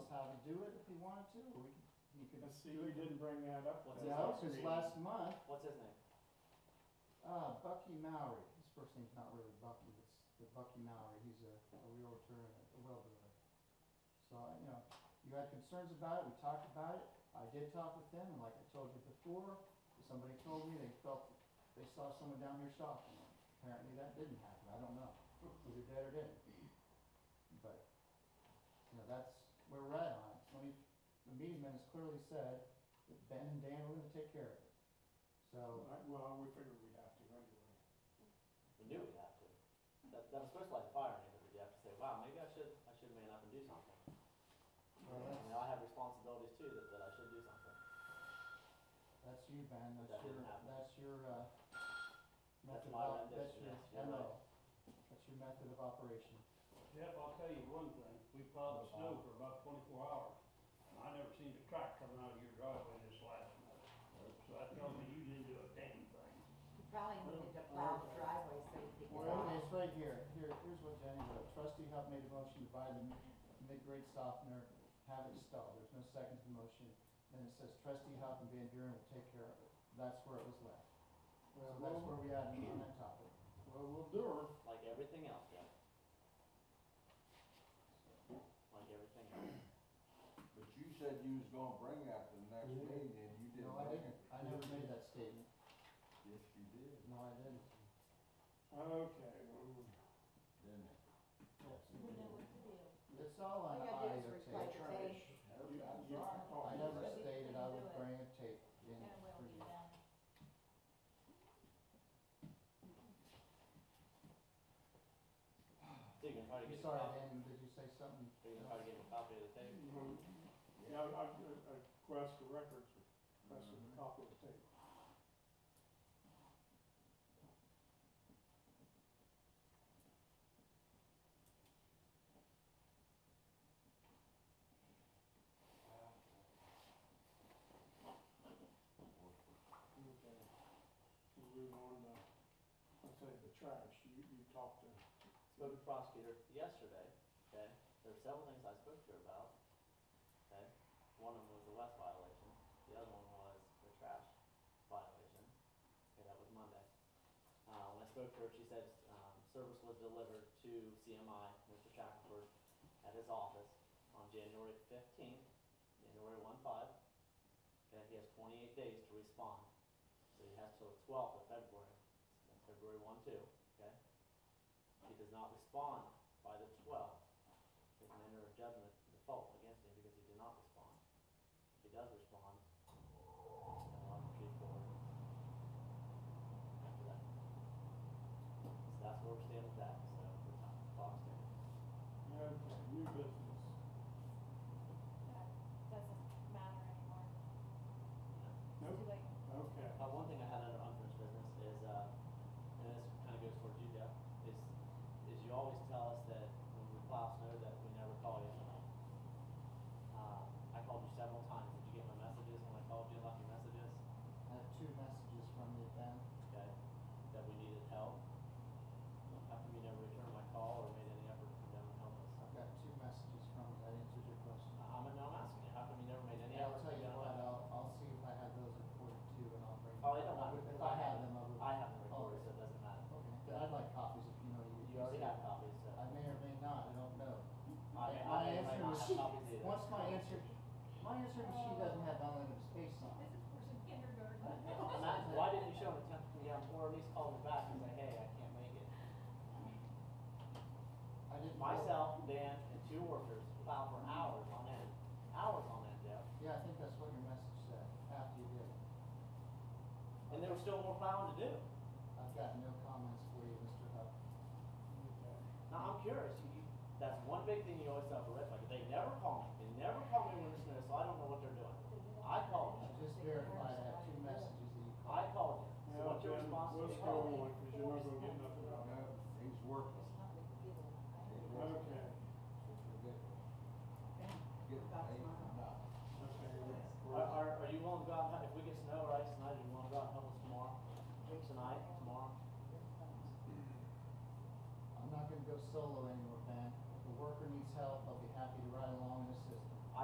wanted to, or we can, you could. Because you didn't bring that up No, last. because last month, What's his name? uh, Bucky Mowry, his first name's not really Bucky, it's the Bucky Mowry, he's a, a realtor and a welder. So, I- you know, you had concerns about it, we talked about it, I did talk with them, and like I told you before, somebody told me they felt, they saw someone down here shopping. Apparently that didn't happen, I don't know, either did or didn't. But, you know, that's where we're at on it, so we- the meeting minutes clearly said that Ben and Dan were gonna take care of it. So, Right, Well, we figured we'd have to anyway. We knew we'd have to. That, that was first like firing him, you have to say, wow, maybe I should, I should man up and do something. well, You know, that's, I have responsibilities too, that, that I should do something. that's you, Ben, But that's that your, didn't happen. that's your, uh, That's method my of, that's rendition, your, yes, you're MO. That's your method of operation. Jeff, I'll tell you one thing, we plowed the snow for about twenty-four hours, and I never seen a crack coming out of your driveway this last month. So that tells me you didn't do a damn thing. You probably needed to plow the driveway so you could get Well, out. it's right here, here, here's what Jenny wrote, trustee Huff made a motion to buy the mid-grade softener, have it installed, there's no second to the motion. Then it says trustee Huff and Van Buren will take care of it, that's where it was left. So Well, that's where we we'll- at on that topic. Well, we'll do her. Like everything else, yeah. Like everything else. But you said you was gonna bring that to the next Yeah. meeting and you didn't No, I bring didn't, it. I never made that statement, Yes, you did, no, I didn't. Okay, well, didn't it? It's all All on you gotta do audio is tape. replay the tape. you, you, That's right. oh, I you- never Maybe we stated can I do would it. bring a tape in That will for be you. done. So you can try I'm to get a sorry, copy, Dan, did you say something? so you can try to get a copy of the tape. you- Yeah. Yeah, I, I, I request the records, request a copy of the tape. Okay. So we want to, let's say the trash, you, you talked to, spoke to the prosecutor yesterday, okay? There were several things I spoke to her about, okay? One of them was the West violation, the other one was the trash violation, okay, that was Monday. Uh, when I spoke to her, she said, um, service was delivered to CMI, Mr. Shackelford, at his office on January fifteenth, January one five. Okay, he has twenty-eight days to respond, so he has till the twelfth of February, that's February one two, okay? he does not respond by the twelfth, they can enter a judgment default against him because he did not respond. If he does respond, then we'll have to proceed forward after that. So that's where we stand with that, so we're time the clock stands. okay, new business. That doesn't matter anymore. Yeah. Nope. It's too late. Okay. Uh, one thing I had under unfinished business is, uh, and this kind of goes towards you, Jeff, is, is you always tell us that when we plow snow that we never call you in the night. Uh, I called you several times. Did you get my messages when I called you and left you messages? I had two messages from you, Ben. Okay, that we needed help. How come you never returned my call or made any effort to come down and help us? I've got two messages from you, that answers your question. I- Uh, I'm, no, I'm asking you, how come you never made any Yeah, I'll effort to tell you come down and what, help? I'll, I'll see if I have those reported too, and I'll bring. Oh, they don't matter. If I have them, I will. I haven't recorded, so it doesn't matter. Okay, but I'd like copies if you know you. You already have copies, so. I may or may not, I don't know. I may- I My may or may answer not have machine, copies either. once my answer, my answer machine doesn't have unlimited space on it. This is for some kindergarten. And that's, why didn't you show an attempt to come down, or at least call me back and say, hey, I can't make it? I didn't. Myself, Dan, and two workers plowed for hours on end, hours on end, Jeff, Yeah, I think that's what your message said, after you did it. and there was still more plowing to do. I've got no comments for you, Mr. Huff. Now, I'm curious, you, you, that's one big thing you always tell the rest, like, they never call me, they never call me when it's snow, so I don't know what they're doing. I I called you, just verified, I have two messages that you I called. called you, so what's your Yeah, response? Let's go on, because you're not gonna get nothing out of No, he's working. it. Okay, Forget it. Get paid or not. okay. Are, are, are you willing to go out, and help- if we get snow or ice tonight, are you willing to go out and help us tomorrow, tonight, tomorrow? I'm not gonna go solo anymore, Ben. If a worker needs help, I'll be happy to ride along in his